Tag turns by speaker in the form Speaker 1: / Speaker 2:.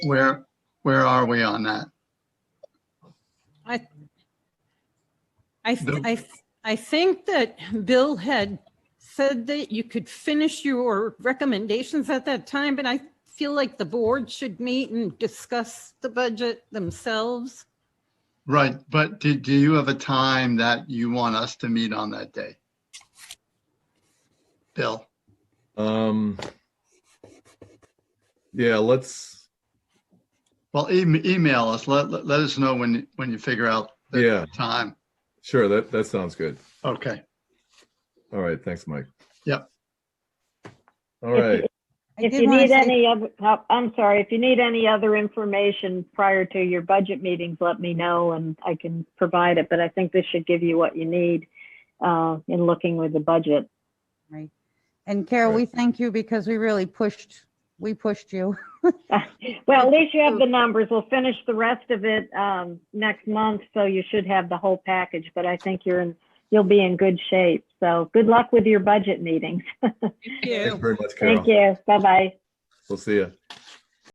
Speaker 1: Where, where are we on that?
Speaker 2: I, th-
Speaker 1: The-
Speaker 2: I, th- I think that Bill had said that you could finish your recommendations at that time, but I feel like the board should meet and discuss the budget themselves.
Speaker 1: Right, but do, do you have a time that you want us to meet on that day? Bill,
Speaker 3: Um, yeah, let's,
Speaker 1: well, em- email us, let, let let us know when, when you figure out the
Speaker 3: yeah,
Speaker 1: time.
Speaker 3: sure. That, that sounds good.
Speaker 1: Okay,
Speaker 3: All right. Thanks, Mike.
Speaker 1: Yep.
Speaker 3: All right.
Speaker 2: I
Speaker 4: If
Speaker 2: did
Speaker 4: you
Speaker 2: wanna
Speaker 4: need
Speaker 2: say-
Speaker 4: any other, help- I'm sorry, if you need any other information prior to your budget meetings, let me know and I can provide it, but I think this should give you what you need uh, in looking with the budget.
Speaker 5: Right. And Carol,
Speaker 3: Right.
Speaker 5: we thank you because we really pushed, we pushed you.
Speaker 4: Well, at least you have the numbers. We'll finish the rest of it um, next month, so you should have the whole package, but I think you're in, you'll be in good shape. So good luck with your budget meetings.
Speaker 2: Yeah.
Speaker 3: Thanks very much,
Speaker 4: Thank
Speaker 3: Carol.
Speaker 4: you. Bye-bye.
Speaker 3: We'll see you.